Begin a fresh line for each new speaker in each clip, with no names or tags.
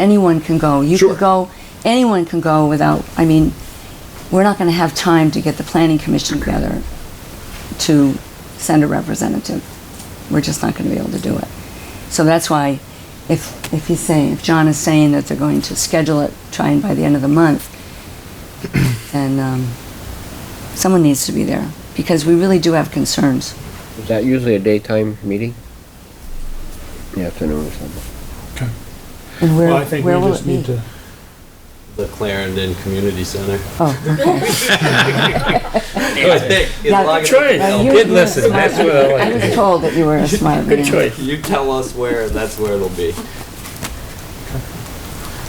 anyone can go. You
Sure.
can go, anyone can go without, I mean, we're not going to have time to get the planning commission together to send a representative. We're just not going to be able to do it. So that's why, if, if he's saying, if John is saying that they're going to schedule it, try and by the end of the month, then um, someone needs to be there, because we really do have concerns.
Is that usually a daytime meeting? In The afternoon or something?
Okay.
And where,
Well, I think we
where will it
just
be?
need to,
the Clarendon Community Center.
Oh, okay.
I think, as
Yeah.
long as
Good
you
choice.
Now, you-
tell-
did
you were a
listen,
smart-
that's what I like to
was
hear.
told that you were a smart man.
Good choice.
You tell us where, that's where it'll be.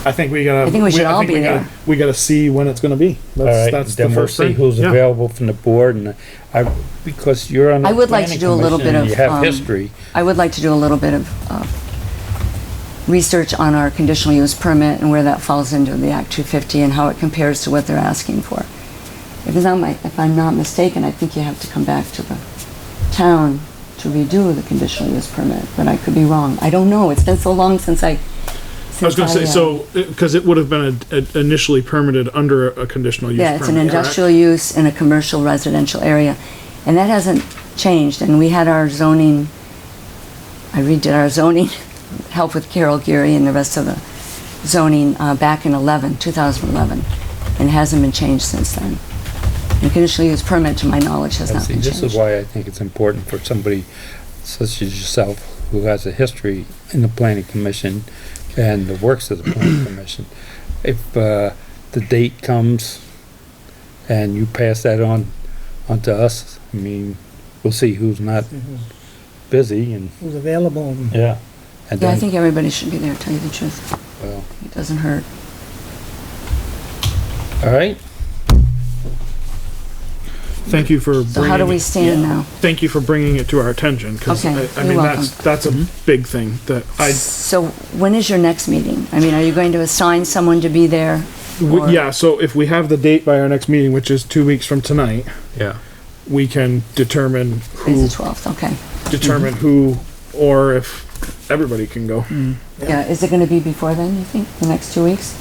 I think we gotta.
I think we should all
think
be
we gotta-
there.
We gotta see when it's gonna be.
All
That's,
right,
that's the
then we'll
first
see
thing.
who's
Yeah.
available from the board and I, because you're on the
I would like to
planning
do a little
commission
bit
and
of.
You have
um,
history.
I would like to do a little bit of uh, research on our conditional use permit and where that falls into the Act 250 and how it compares to what they're asking for. Because I'm, if I'm not mistaken, I think you have to come back to the town to redo the conditional use permit, but I could be wrong. I don't know, it's been so long since I.
I was gonna
since
say,
uh,
so, because it would have been a- a- initially permitted under a conditional use
Yeah,
permit.
it's an
correct?
industrial use in a commercial residential area, and that hasn't changed, and we had our zoning, I redid our zoning, help with Carol Geary and the rest of the zoning, uh, back in 11, 2011, and it hasn't been changed since then. And conditional use permit, to my knowledge, has
And
not
see,
been
this is
changed.
why I think it's important for somebody such as yourself, who has a history in the planning commission and the works of the planning commission. If, uh, the date comes and you pass that on, on to us, I mean, we'll see who's not
Mm-hmm.
busy and,
Who's available. and-
yeah. And
Yeah, I
then-
think everybody should be there, tell you the truth.
well,
It doesn't hurt.
All right,
Thank you for
So how do
bringing,
we
it-
stand now?
thank you for bringing it to our attention, because
Okay,
I, I
you're
mean, that's, that's a
Mm-hmm.
big thing that I,
So when is your next meeting? I mean, are you going to assign someone to be there?
w-
Or-
yeah, so if we have the date by our next meeting, which is two weeks from tonight,
yeah.
we can determine
It's
who,
the 12th, okay.
determine
mm-hmm.
who, or if everybody can go.
Yeah, is it gonna be before then, you think, the next two weeks?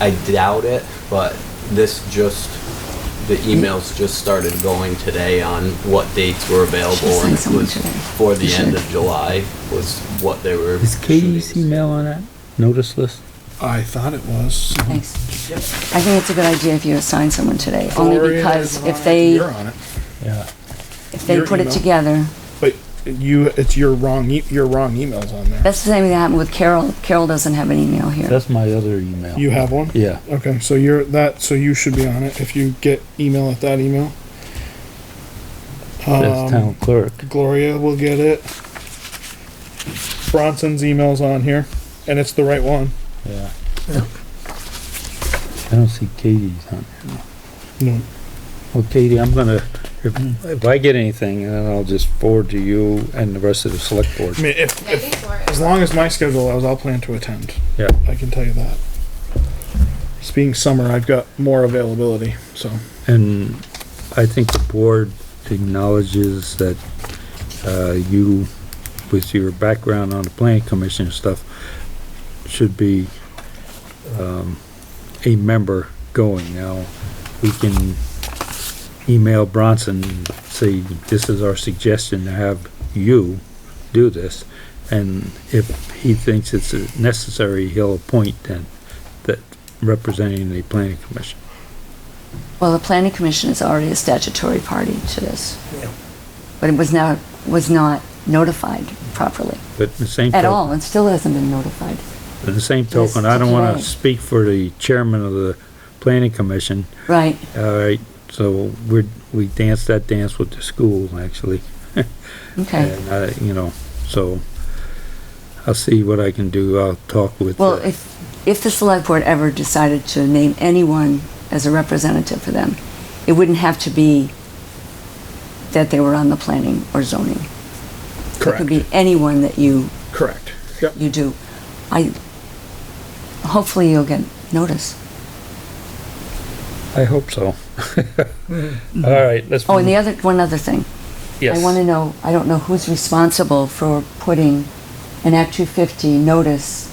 I doubt it, but this just, the
Hmm?
emails just started going today on what dates were available.
Should
and
send
it
someone
was
today.
For the
You
end
should.
of July was what they were.
Is E Katie's
shooting.
email on that notice list?
I thought it was.
Thanks. I think it's a good idea if you assign someone today, only
Gloria
because
is on
if
it.
they,
You're on it.
Yeah.
if they
Your
put it
email.
together,
But you, it's your wrong, e- your wrong email's on there.
that's the same thing that happened with Carol. Carol doesn't have an email here.
That's my other email.
You have one?
Yeah.
Okay, so you're that, so you should be on it if you get email at that email.
That's
Um,
town clerk.
Gloria will get it. Bronson's email's on here, and it's the right one.
Yeah. I don't see Katie's on there.
No.
Well, Katie, I'm gonna, if, if I get anything, then I'll just forward to you and the rest of the select board.
I mean, if, if,
Maybe for
as long as my schedule allows, I'll plan to attend.
Yeah.
I can tell you that. It's being summer, I've got more availability, so.
And I think the board acknowledges that, uh, you, with your background on the planning commission and stuff, should be, um, a member going. Now, we can email Bronson, and say, this is our suggestion to have you do this. And if he thinks it's necessary, he'll appoint then, that representing the planning commission.
Well, the planning commission is already a statutory party to this. But it was now, was not notified properly
But the same
at
token-
all, and still hasn't been notified.
At the same
Yes,
token, I don't wanna
right.
speak for the chairman of the planning commission,
Right,
all right? So we're, we danced that dance with the school, actually,
okay.
and I, you know, so I'll see what I can do, I'll talk with.
Well,
uh,
if, if the select board ever decided to name anyone as a representative for them, it wouldn't have to be that they were on the planning or zoning. It could be anyone that you,
Correct. Yep.
you do. I, hopefully you'll get notice.
I hope so. All right, let's.
Oh, and the
move-
other, one other thing.
Yes.
I want to know, I don't know who's responsible for putting an Act 250 notice